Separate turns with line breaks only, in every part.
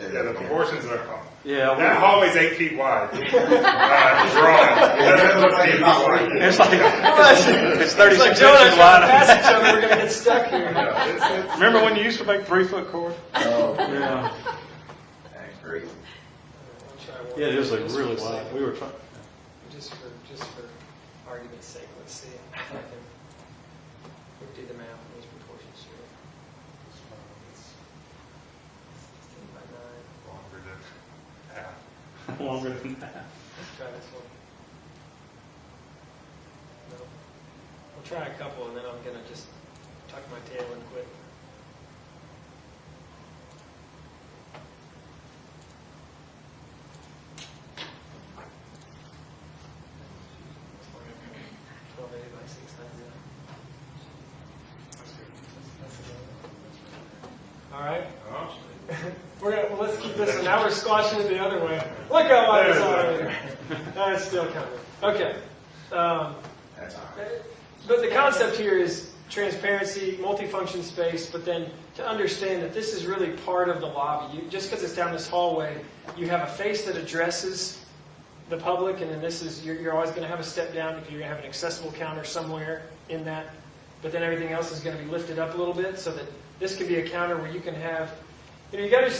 Yeah, the proportions are off.
Yeah,
That
we-
hallway's eight feet wide. Uh, Drawn. That doesn't look eight feet wide.
it's like it's 36 inches wide.
each other, we're gonna get stuck here.
Yeah, it's-
Remember when you used to make three foot cord?
Oh,
Yeah,
that's great.
yeah, it was like really wide. We were trying.
Just for, just for argument's sake, let's see it. I can- We can do the math on these proportions here. Sixteen by nine,
it's longer than half.
Longer than that.
let's try this one. No. We'll try a couple and then I'm gonna just tuck my tail and quit. Twelve eighty by six ninety. All right.
Oh.
We're gonna, well, let's keep this one. Now we're squashing it the other way. Look how wide it's already. That's still coming. Okay. Um,
That's all right.
but the concept here is transparency, multifunction space, but then to understand that this is really part of the lobby. You, just because it's down this hallway, you have a face that addresses the public, and then this is, you're, you're always going to have a step down because you're going to have an accessible counter somewhere in that. But then everything else is going to be lifted up a little bit so that this can be a counter where you can have, you know, you got to,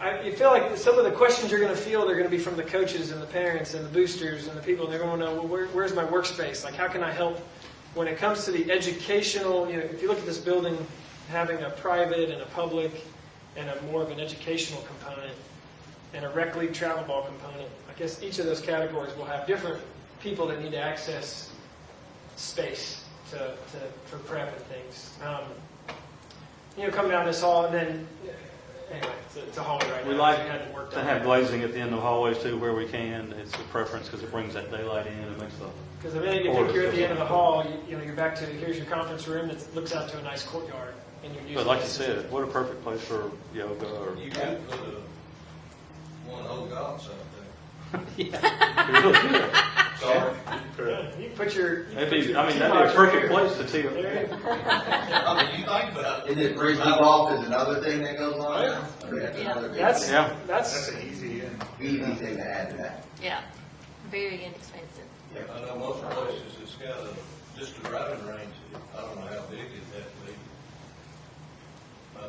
I you feel like some of the questions you're going to feel, they're going to be from the coaches and the parents and the boosters and the people. They're going to know, well, where, where's my workspace? Like, how can I help when it comes to the educational, you know, if you look at this building, having a private and a public and a more of an educational component and a rec league travel ball component, I guess each of those categories will have different people that need to access space to, to, for prep and things. Um, you know, come down this hall and then, anyway, it's a, it's a hallway right
We
now.
like
so you had to work
To have glazing at the end of hallways too, where we can, it's a preference because it brings that daylight in and makes the
Because I think if
Or-
you're at the end of the hall, you, you know, you're back to, here's your conference room that looks out to a nice courtyard, and you're using.
But like you
this.
said, what a perfect place for yoga or.
You could put a, one old golf shop there. Sorry.
Good.
Yeah, You put your. you
It'd
put
be,
your
I mean,
tee
that'd be a
box
perfect
right
place to tee
here. There
up.
it is.
I mean, you think, but I.
Is it free tee off is another thing that goes
Oh,
on? Okay, that's another big-
That's,
Yeah.
that's,
That's an easy in.
Easy thing to add to that.
Yeah, very inexpensive.
I know most places, it's got a, just a driving range, I don't know how big is that,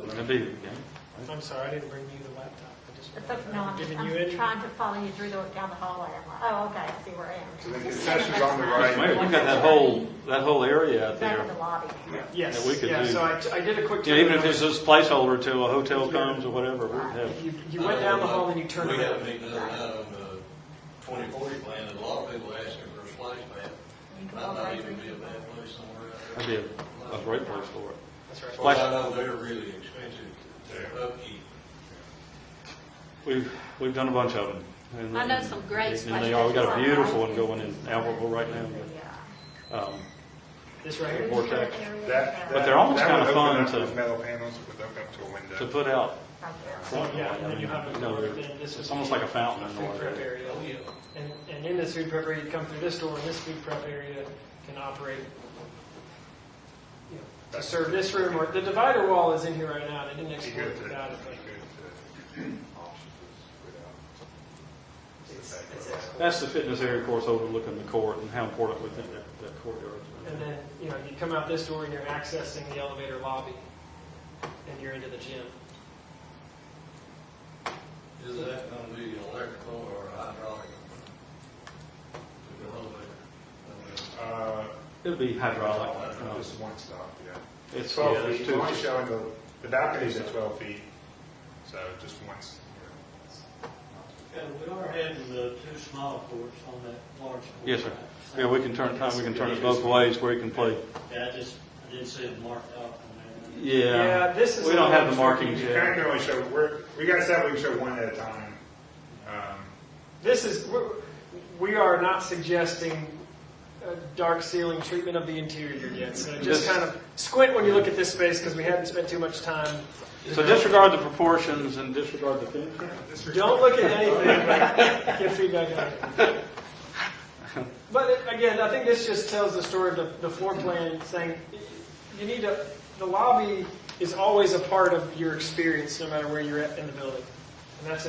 maybe.
It'd be, yeah.
I'm sorry, I didn't bring you the laptop. I just
But no, I'm
wanted- giving
I'm
you it.
trying to follow you through the, down the hallway. I'm like, oh, okay, I see where I
So
am.
the concession's on the
Mayor,
right.
we got that whole, that whole area out
Back in the
there.
lobby.
Yes,
that we could
yeah,
do.
so I, I did a quick.
Yeah, even if
turnaround.
it's just placeholder till a hotel comes or whatever, we'd have,
If You, you went down the hall and you turned
We had a
around.
meeting the other night on the twenty forty plan, and a lot of people asking for a splash pad.
You can
Might
go
not
right
even be a
through.
bad place somewhere out there.
that'd be a, a great place for it.
That's right.
Well, I know they're really expensive to upkeep.
We've, we've done a bunch of them. And-
I know some great
And they are, we got a beautiful one going in Albertville right now. but, Um,
This right here.
vortex.
That-
But they're almost
that would
kinda fun
open up
to-
Those metal panels would open up to a window.
to put out
Oh,
front.
Yeah,
I
and then
mean,
you have a
you know,
door, then this
It's
would
almost
be
like a fountain in the
Food prep
way.
area.
Oh, yeah.
And, and in this food prep area, you come through this door, and this food prep area can operate you know, to serve this room, or the divider wall is in here right now, and I didn't
Be
explore
good
it
to, be good to
without it. but it's- it's excellent.
That's the fitness area, of course, overlooking the court and how important we think that, that courtyard
And
is.
then, you know, you come out this door and you're accessing the elevator lobby, and you're into the gym.
Is that gonna be electrical or hydraulic? The elevator.
Uh,
It'll be hydraulic. um,
Just one stop, yeah.
It's yeah,
Twelve
there's
feet,
two-
we're only showing the, the balconies at twelve feet, so just once.
Yeah, we are adding the uh, two smaller courts on that large court.
Yes, sir. Yeah, we can turn, we can turn it both ways where you can play.
Yeah, I just, I didn't see it marked out on there.
Yeah.
this is.
We don't have the
You
markings
kind of
yet.
can only show, we're, we got set, we can show one at a time. Um,
This is, we're- we are not suggesting a dark ceiling treatment of the interior yet, so just
This-
kind of squint when you look at this space, because we haven't spent too much time.
So disregard the proportions and disregard the finishing.
this-
Don't look at anything, but get feedback on it. But it- again, I think this just tells the story of the, the floor plan, saying, you need to, the lobby is always a part of your experience, no matter where you're at in the building. And that's